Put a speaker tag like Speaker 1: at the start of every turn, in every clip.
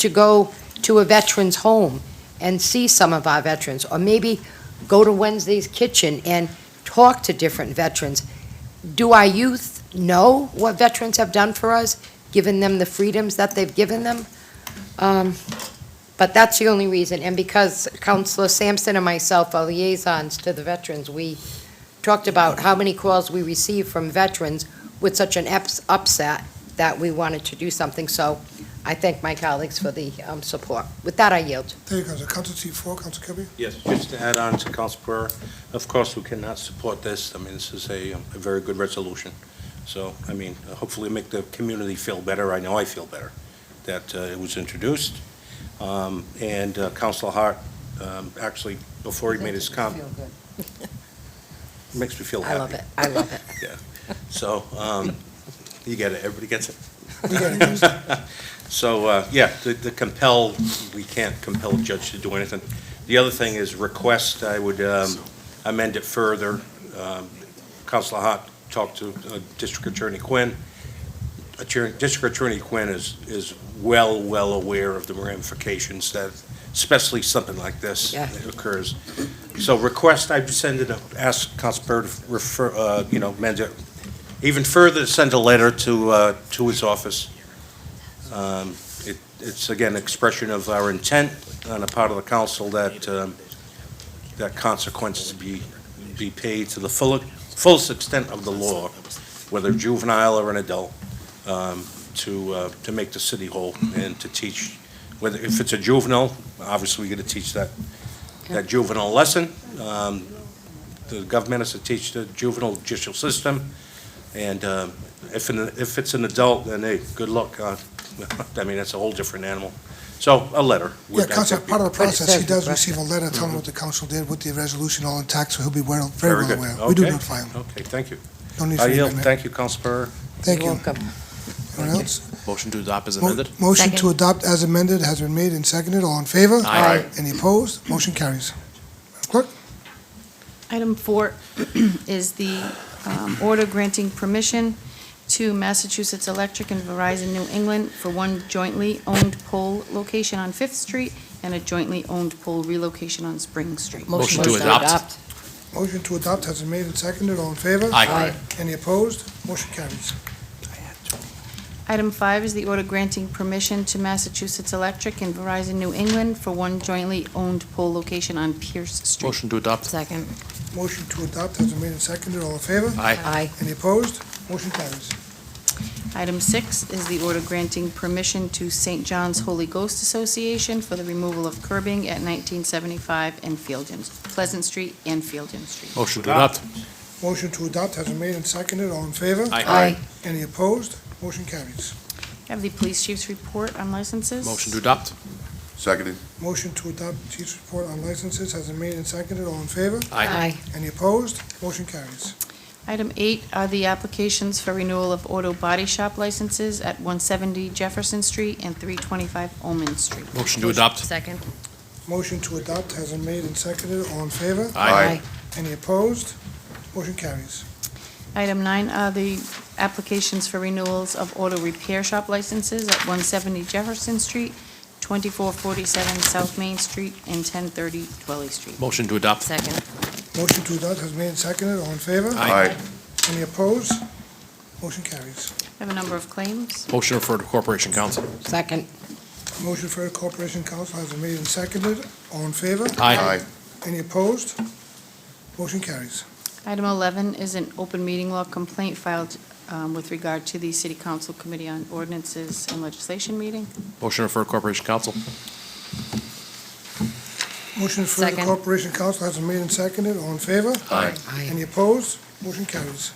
Speaker 1: to go to a veteran's home and see some of our veterans, or maybe go to Wednesday's Kitchen and talk to different veterans. Do our youth know what veterans have done for us, given them the freedoms that they've given them? Um, But that's the only reason, and because Counselor Sampson and myself are liaisons to the veterans, we talked about how many calls we receive from veterans with such an ups- upset that we wanted to do something, so I thank my colleagues for the um, support. With that, I yield.
Speaker 2: There you go, Council seat four, Council Kirby.
Speaker 3: Yes, just to add on to Council Pereira, of course, we cannot support this. I mean, this is a, um, a very good resolution. So, I mean, hopefully make the community feel better. I know I feel better that uh, it was introducil Um, and uh, Council Hart, um, actually, before he made his comment, makes me feel
Speaker 1: I
Speaker 3: happy.
Speaker 1: love it, I love it.
Speaker 3: So, um, you get it, everybody gets it.
Speaker 2: You got it, Council.
Speaker 3: So, uh, yeah, the- the compel, we can't compel a judge to do anything. The other thing is request, I would um, amend it further. Um, Counselor Hart talked to uh, District Attorney Quinn. Attorney- District Attorney Quinn is, is well, well aware of the ramifications that, especially something like this
Speaker 1: Yeah.
Speaker 3: occurs. So request, I'd send it, a- ask Council Burr to refer, uh, you know, amend it, even further, send a letter to, uh, to his office um, it- It's, again, expression of our intent on the part of the council that, um, that consequences be, be paid to the full, fullest extent of the law, whether juvenile or an adult, um, to, uh, to make the city whole and to teach, whether, if it's a juvenile, obviously we're going to teach that, that juvenile lesson. Um, The government has to teach the juvenile judicial system, and um, if, an- if it's an adult, then hey, good luck on I mean, that's a whole different animal. So, a letter.
Speaker 2: Yeah,
Speaker 3: would-
Speaker 2: Council, part of the
Speaker 1: But it
Speaker 2: process, he
Speaker 1: says
Speaker 2: does
Speaker 1: request.
Speaker 2: receive a letter telling what the council did with the resolution all intact, so he'll be well, very well
Speaker 3: Very good.
Speaker 2: aware. uh, We do
Speaker 3: Okay.
Speaker 2: notify him.
Speaker 3: Okay, thank you.
Speaker 2: No need
Speaker 3: I
Speaker 2: for
Speaker 3: yield,
Speaker 2: amendment.
Speaker 3: thank you, Council Pereira.
Speaker 2: Thank
Speaker 1: You're
Speaker 2: you.
Speaker 1: welcome.
Speaker 2: Anyone else?
Speaker 4: Motion to adopt is
Speaker 2: Mo-
Speaker 4: amended?
Speaker 2: Motion to
Speaker 5: Second.
Speaker 2: adopt as amended has been made and seconded. All in favor?
Speaker 4: Aye. Aye.
Speaker 2: Any opposed? Motion carries. Madam Clerk?
Speaker 5: Item four is the um, order granting permission to Massachusetts Electric and Verizon New England for one jointly owned pole location on Fifth Street and a jointly owned pole relocation on Spring Street.
Speaker 4: Motion to adopt.
Speaker 2: Motion to adopt has been made and seconded. All in favor?
Speaker 4: Aye.
Speaker 2: Any opposed? Motion carries.
Speaker 5: Item five is the order granting permission to Massachusetts Electric and Verizon New England for one jointly owned pole location on Pierce Street.
Speaker 4: Motion to adopt?
Speaker 1: Second.
Speaker 2: Motion to adopt has been made and seconded. All in favor?
Speaker 4: Aye.
Speaker 1: Aye.
Speaker 2: Any opposed? Motion carries.
Speaker 5: Item six is the order granting permission to St. John's Holy Ghost Association for the removal of curbing at 1975 and Fieldin, Pleasant Street and Fieldin Street.
Speaker 4: Motion to adopt?
Speaker 2: Motion to adopt has been made and seconded. All in favor?
Speaker 1: Aye.
Speaker 2: Any opposed? Motion carries.
Speaker 5: Have the police chief's report on licenses.
Speaker 4: Motion to adopt?
Speaker 6: Seconded.
Speaker 2: Motion to adopt chief's report on licenses has been made and seconded. All in favor?
Speaker 1: Aye.
Speaker 2: Any opposed? Motion carries.
Speaker 5: Item eight are the applications for renewal of auto body shop licenses at 170 Jefferson Street and 325 Omen Street.
Speaker 4: Motion to adopt?
Speaker 1: Second.
Speaker 2: Motion to adopt has been made and seconded. All in favor?
Speaker 4: Aye.
Speaker 2: Any opposed? Motion carries.
Speaker 5: Item nine are the applications for renewals of auto repair shop licenses at 170 Jefferson Street, 2447 South Main Street, and 1030 Dwelly Street.
Speaker 4: Motion to adopt?
Speaker 1: Second.
Speaker 2: Motion to adopt has been made and seconded. All in favor?
Speaker 6: Aye.
Speaker 2: Any opposed? Motion carries.
Speaker 5: I have a number of claims.
Speaker 4: Motion referred to Corporation Council?
Speaker 1: Second.
Speaker 2: Motion for the Corporation Council has been made and seconded. All in favor?
Speaker 6: Aye.
Speaker 2: Any opposed? Motion carries.
Speaker 5: Item 11 is an open meeting law complaint filed um, with regard to the City Council Committee on Ordinances and Legislation meeting.
Speaker 4: Motion referred to Corporation Council?
Speaker 2: Motion for the
Speaker 1: Second.
Speaker 2: Corporation Council has been made and seconded. All in favor?
Speaker 4: Aye.
Speaker 1: Aye.
Speaker 2: Any opposed? Motion carries.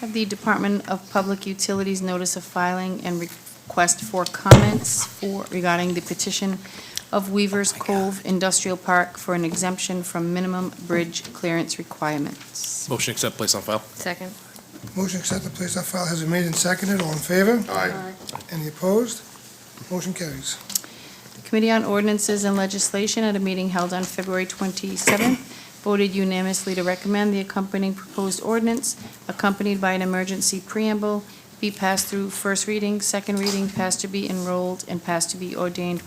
Speaker 5: Have the Department of Public Utilities notice of filing and request for comments for, regarding the petition of Weaver's Cove Industrial Park for an exemption from minimum bridge clearance requirements.
Speaker 4: Motion accept place on file?
Speaker 1: Second.
Speaker 2: Motion to accept the place on file has been made and seconded. All in favor?
Speaker 6: Aye.
Speaker 2: Any opposed? Motion carries.
Speaker 5: The Committee on Ordinances and Legislation, at a meeting held on February 27th, voted unanimously to recommend the accompanying proposed ordinance, accompanied by an emergency preamble, be passed through first reading, second reading, passed to be enrolled, and passed to be ordained